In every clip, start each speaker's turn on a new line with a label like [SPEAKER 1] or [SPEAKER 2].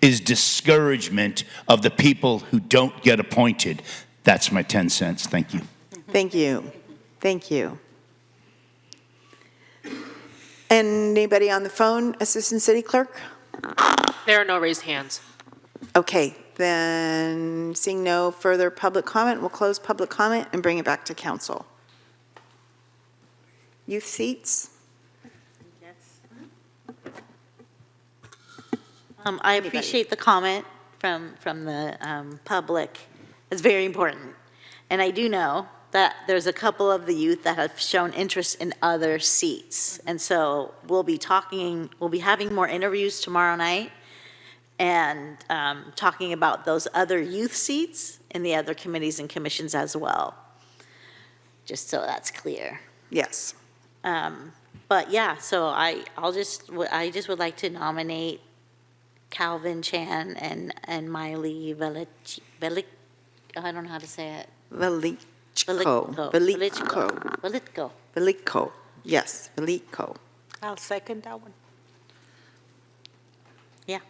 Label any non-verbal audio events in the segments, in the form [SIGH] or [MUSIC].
[SPEAKER 1] is discouragement of the people who don't get appointed. That's my 10 cents. Thank you.
[SPEAKER 2] Thank you. Thank you. Anybody on the phone, Assistant City Clerk?
[SPEAKER 3] There are no raised hands.
[SPEAKER 2] Okay, then seeing no further public comment, we'll close public comment and bring it back to council. Youth seats?
[SPEAKER 4] Um, I appreciate the comment from, from the, um, public. It's very important. And I do know that there's a couple of the youth that have shown interest in other seats. And so we'll be talking, we'll be having more interviews tomorrow night and, um, talking about those other youth seats in the other committees and commissions as well. Just so that's clear.
[SPEAKER 2] Yes.
[SPEAKER 4] Um, But yeah, so I, I'll just, I just would like to nominate Calvin Chan and, and Miley Velich, Velich, I don't know how to say it.
[SPEAKER 2] Velichko.
[SPEAKER 4] Velichko.
[SPEAKER 2] Velichko.
[SPEAKER 4] Veliko.
[SPEAKER 2] Velichko. Yes, Velichko.
[SPEAKER 5] I'll second that one.
[SPEAKER 4] Yeah.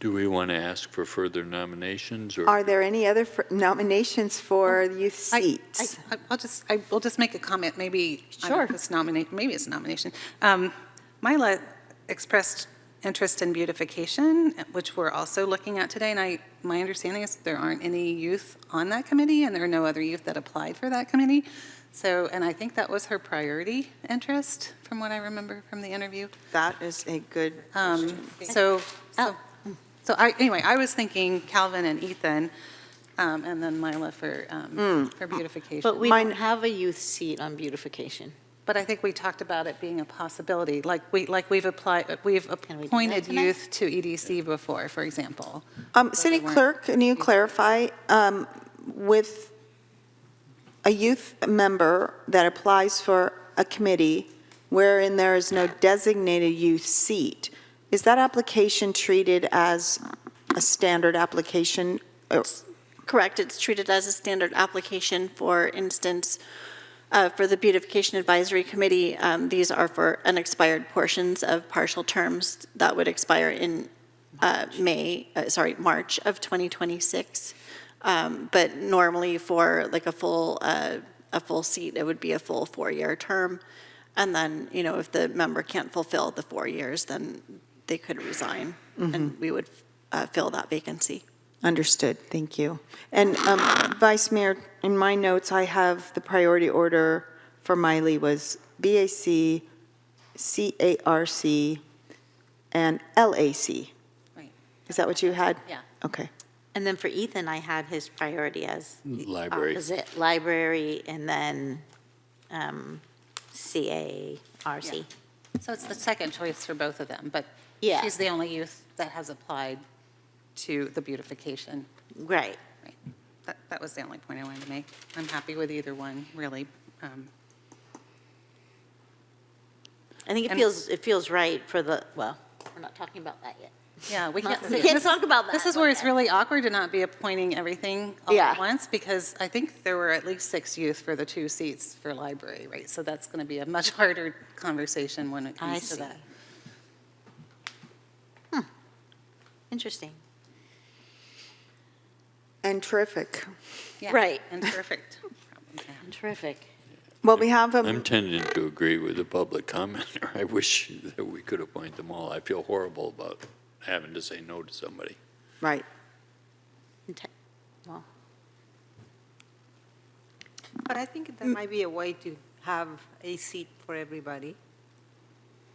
[SPEAKER 6] Do we want to ask for further nominations or?
[SPEAKER 2] Are there any other fr- nominations for youth
[SPEAKER 5] I- I-
[SPEAKER 2] seats?
[SPEAKER 5] I- I'll just, I will just make a comment, maybe. I don't know if
[SPEAKER 4] Sure.
[SPEAKER 5] It's nominate, maybe it's a nomination. Um, Mila expressed interest in beautification, which we're also looking at today, and I, my understanding is there aren't any youth on that committee, and there are no other youth that applied for that committee. So, and I think that was her priority interest, from what I remember from the interview.
[SPEAKER 2] That is a good
[SPEAKER 5] Um,
[SPEAKER 2] question.
[SPEAKER 5] So, so,
[SPEAKER 4] Oh.
[SPEAKER 5] so I, anyway, I was thinking Calvin and Ethan, um, and then Mila for, um, for
[SPEAKER 4] Hmm. But
[SPEAKER 5] beautification.
[SPEAKER 4] we
[SPEAKER 2] Mine-
[SPEAKER 4] don't have a youth seat on beautification.
[SPEAKER 5] But I think we talked about it being a possibility, like we, like we've applied, uh, we've
[SPEAKER 4] we do that
[SPEAKER 5] appointed
[SPEAKER 4] tonight?
[SPEAKER 5] youth to EDC before, for example.
[SPEAKER 2] Um, City
[SPEAKER 5] they weren't-
[SPEAKER 2] Clerk, can you clarify, um, with a youth member that applies for a committee wherein there is no designated youth seat, is that application treated as a standard application? Or-
[SPEAKER 7] Correct, it's treated as a standard application, for instance, uh, for the Beautification Advisory Committee, um, these are for unexpired portions of partial terms that would expire in uh, May, uh, sorry, March of 2026. Um, But normally for like a full, uh, a full seat, it would be a full four-year term. And then, you know, if the member can't fulfill the four years, then they could resign, and we would uh, fill that vacancy.
[SPEAKER 2] Understood, thank you. And um, Vice Mayor, in my notes, I have the priority order for Miley was BAC, CARC, and LAC.
[SPEAKER 5] Right.
[SPEAKER 2] Is that what you had?
[SPEAKER 4] Yeah.
[SPEAKER 2] Okay.
[SPEAKER 4] And then for Ethan, I had his priority as the
[SPEAKER 6] Library.
[SPEAKER 4] opposite, library, and then um, CARC.
[SPEAKER 5] So it's the second choice for both of them, but
[SPEAKER 4] Yeah.
[SPEAKER 5] she's the only youth that has applied to the beautification.
[SPEAKER 4] Right.
[SPEAKER 5] Right. That, that was the only point I wanted to make. I'm happy with either one, really. Um,
[SPEAKER 4] I think it
[SPEAKER 5] And-
[SPEAKER 4] feels, it feels right for the, well, we're not talking about that yet.
[SPEAKER 5] Yeah, we can't.
[SPEAKER 4] We can't
[SPEAKER 5] this-
[SPEAKER 4] [LAUGHS] talk about
[SPEAKER 5] This
[SPEAKER 4] that
[SPEAKER 5] is where
[SPEAKER 4] one
[SPEAKER 5] it's
[SPEAKER 4] then.
[SPEAKER 5] really awkward to not be appointing everything all at
[SPEAKER 4] Yeah.
[SPEAKER 5] once, because I think there were at least six youth for the two seats for library, right? So that's going to be a much [LAUGHS] harder conversation when it
[SPEAKER 4] I
[SPEAKER 5] comes to
[SPEAKER 4] see.
[SPEAKER 5] that.
[SPEAKER 4] Interesting.
[SPEAKER 2] And terrific.
[SPEAKER 5] Yeah,
[SPEAKER 4] Right. [LAUGHS]
[SPEAKER 5] And perfect.
[SPEAKER 4] Terrific.
[SPEAKER 2] Well, we have, um,
[SPEAKER 6] I'm tending to agree with the public commenter. I wish that we could appoint them all. I feel horrible about having to say no to somebody.
[SPEAKER 2] right.
[SPEAKER 4] Inte- Well,
[SPEAKER 8] But I think
[SPEAKER 4] Mm.
[SPEAKER 8] there might be a way to have a seat for everybody,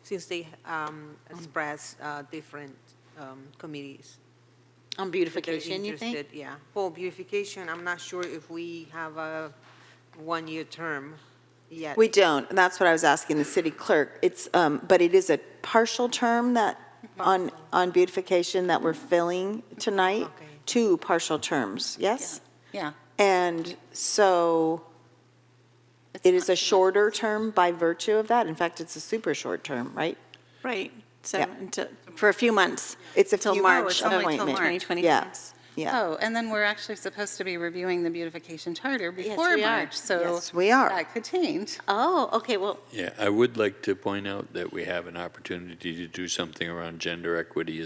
[SPEAKER 8] since they um,
[SPEAKER 4] Mm.
[SPEAKER 8] express uh, different um, committees.
[SPEAKER 4] on
[SPEAKER 8] that they're
[SPEAKER 4] beautification, you think?
[SPEAKER 8] interested- Yeah. For beautification, I'm not sure if we have a one-year term yet.
[SPEAKER 2] We don't, and that's what I was asking the city clerk. It's, um, but it is a partial term that, on, on beautification that we're filling tonight,
[SPEAKER 8] Okay.
[SPEAKER 2] two partial terms, yes?
[SPEAKER 5] Yeah.
[SPEAKER 2] And so it is a shorter term by virtue of that. In fact, it's a super short term, right?
[SPEAKER 7] Right, so,
[SPEAKER 2] Yeah.
[SPEAKER 7] until- for a few months.
[SPEAKER 2] It's a
[SPEAKER 7] till
[SPEAKER 2] few
[SPEAKER 7] March
[SPEAKER 2] months
[SPEAKER 7] of
[SPEAKER 2] appointment. Yeah.
[SPEAKER 7] 2026.
[SPEAKER 2] Yeah.
[SPEAKER 5] Oh, and then we're actually supposed to be reviewing the beautification charter before
[SPEAKER 4] we are.
[SPEAKER 5] March, Oh, so.
[SPEAKER 2] Yes, we are.
[SPEAKER 5] That could change.
[SPEAKER 4] Oh, okay, well,
[SPEAKER 6] Yeah, I would like to point out that we have an opportunity to do something around gender equity